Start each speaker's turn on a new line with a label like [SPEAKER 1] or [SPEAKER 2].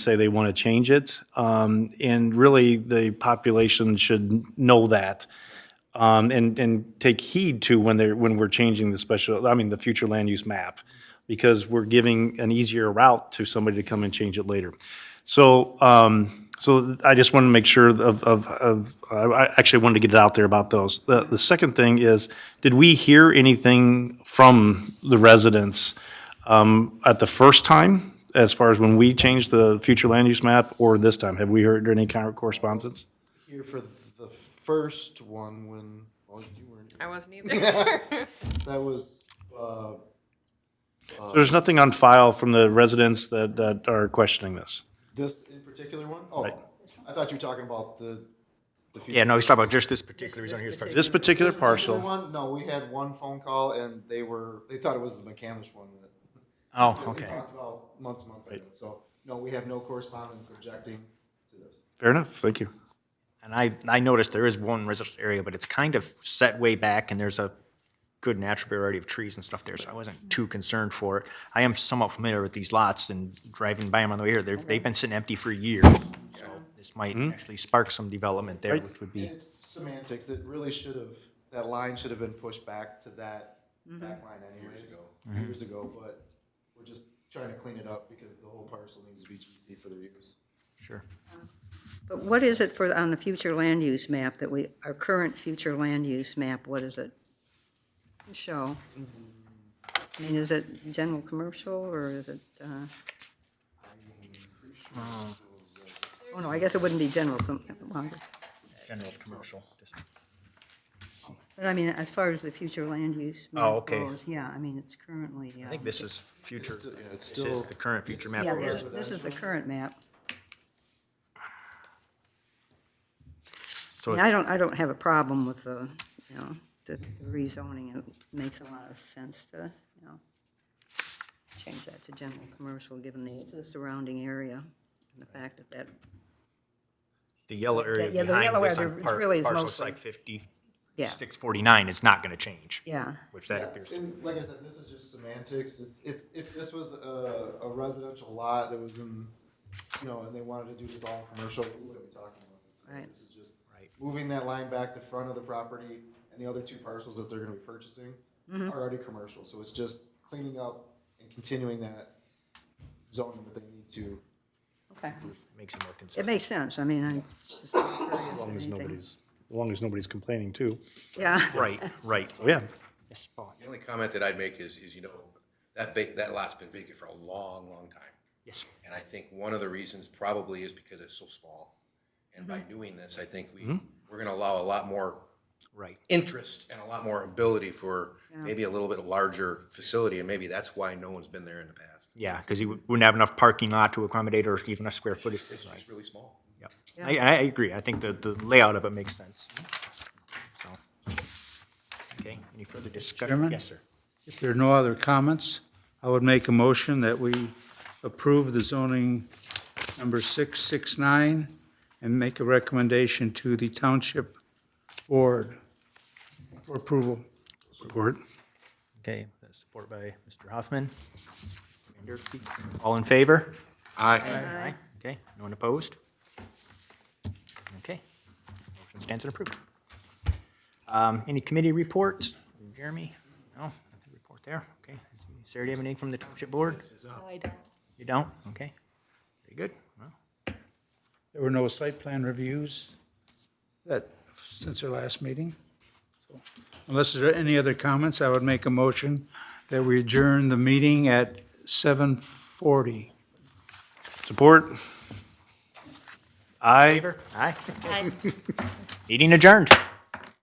[SPEAKER 1] say they want to change it. Um, And really, the population should know that um, and, and take heed to when they're, when we're changing the special, I mean, the future land use map, because we're giving an easier route to somebody to come and change it later. So, um, so I just wanted to make sure of, of, of, I I actually wanted to get it out there about those. The, the second thing is, did we hear anything from the residents um, at the first time, as far as when we changed the future land use map, or this time? Have we heard any kind of correspondence?
[SPEAKER 2] here for the first one when, well, you weren't,
[SPEAKER 3] I wasn't either.
[SPEAKER 2] that was, uh,
[SPEAKER 1] There's nothing on file from the residents that, that are questioning this.
[SPEAKER 2] this in particular one? Oh, I thought you were talking about the, the future.
[SPEAKER 4] Yeah, no, he's talking about just this particular zone here. as far as-
[SPEAKER 1] This particular parcel,
[SPEAKER 2] One, no, we had one phone call and they were, they thought it was the McCamish one that
[SPEAKER 4] Oh,
[SPEAKER 2] we
[SPEAKER 4] okay.
[SPEAKER 2] talked about months, months ago. So, no, we have no correspondence objecting to this.
[SPEAKER 1] fair enough, thank you.
[SPEAKER 4] And I, I noticed there is one residential area, but it's kind of set way back and there's a good natural variety of trees and stuff there, so I wasn't too concerned for it. I am somewhat familiar with these lots and driving by them on the way here, they've, they've been sitting empty for years. So This might actually spark some development there, which would be,
[SPEAKER 2] It's semantics. It really should have, that line should have been pushed back to that back line anyways, years ago, but we're just trying to clean it up because the whole parcel needs to be GC for their use.
[SPEAKER 4] sure.
[SPEAKER 5] But what is it for, on the future land use map that we, our current future land use map, what does it show? I mean, is it general commercial, or is it, uh? Oh, no, I guess it wouldn't be general, com- well,
[SPEAKER 4] General commercial. just-
[SPEAKER 5] but I mean, as far as the future land use
[SPEAKER 4] Oh,
[SPEAKER 5] map
[SPEAKER 4] okay.
[SPEAKER 5] goes, yeah, I mean, it's currently,
[SPEAKER 4] I
[SPEAKER 5] uh,
[SPEAKER 4] think this is future,
[SPEAKER 2] it's
[SPEAKER 4] this is
[SPEAKER 2] still-
[SPEAKER 4] the current future map.
[SPEAKER 5] yeah,
[SPEAKER 4] area.
[SPEAKER 5] this is- this is the current map.
[SPEAKER 4] So
[SPEAKER 5] Yeah, I don't, I don't have a problem with the, you know, the rezoning, it makes a lot of sense to, you know, change that to general commercial, given the, the surrounding area, and the fact that that,
[SPEAKER 4] the yellow area
[SPEAKER 5] yeah, the
[SPEAKER 4] behind
[SPEAKER 5] yellow
[SPEAKER 4] this
[SPEAKER 5] area
[SPEAKER 4] on
[SPEAKER 5] is
[SPEAKER 4] par-
[SPEAKER 5] really is
[SPEAKER 4] parcel
[SPEAKER 5] mostly-
[SPEAKER 4] site fifty,
[SPEAKER 5] yeah,
[SPEAKER 4] six forty-nine is not gonna change.
[SPEAKER 5] yeah.
[SPEAKER 4] Which that appears to
[SPEAKER 2] And like I said, this is just semantics. It's, if, if this was a, a residential lot that was in, you know, and they wanted to do this all commercial, what are we talking about? This,
[SPEAKER 5] Right.
[SPEAKER 2] this is just
[SPEAKER 4] Right.
[SPEAKER 2] moving that line back the front of the property and the other two parcels that they're gonna be purchasing are already commercial. So it's just cleaning up and continuing that zoning that they need to.
[SPEAKER 5] Okay.
[SPEAKER 4] makes it more
[SPEAKER 5] It
[SPEAKER 4] consistent.
[SPEAKER 5] makes sense, I mean, I just curious if anything.
[SPEAKER 1] Nobody's, as long as nobody's complaining too.
[SPEAKER 5] Yeah,
[SPEAKER 4] Right, right.
[SPEAKER 1] Oh, yeah.
[SPEAKER 6] The only comment that I'd make is, is, you know, that ba, that lot's been vacant for a long, long time.
[SPEAKER 4] Yes.
[SPEAKER 6] And I think one of the reasons probably is because it's so small. And by doing this, I think we, we're gonna allow a lot more
[SPEAKER 4] Right.
[SPEAKER 6] interest and a lot more ability for maybe a little bit larger facility, and maybe that's why no one's been there in the past.
[SPEAKER 4] Yeah, because you wouldn't have enough parking lot to accommodate or even a square footage.
[SPEAKER 6] It's just really small.
[SPEAKER 4] Yep. I, I agree. I think the, the layout of it makes sense. So. Okay, any further discussion?
[SPEAKER 7] Chairman?
[SPEAKER 4] Yes, sir.
[SPEAKER 7] If there are no other comments, I would make a motion that we approve the zoning number 669 and make a recommendation to the Township Board for approval.
[SPEAKER 1] Support.
[SPEAKER 4] Okay, that's supported by Mr. Hoffman. Anderson. All in favor?
[SPEAKER 6] Aye.
[SPEAKER 4] Aye. Okay, no one opposed? Okay, motion stands and approved. Um, Any committee reports? Jeremy? No, nothing to report there, okay. Sarah, do you have anything from the township board? You don't? Okay, very good. Well,
[SPEAKER 7] There were no site plan reviews that, since our last meeting. So, Unless there are any other comments, I would make a motion that we adjourn the meeting at 7:40.
[SPEAKER 1] Support. Aye.
[SPEAKER 4] Aye. Meeting adjourned.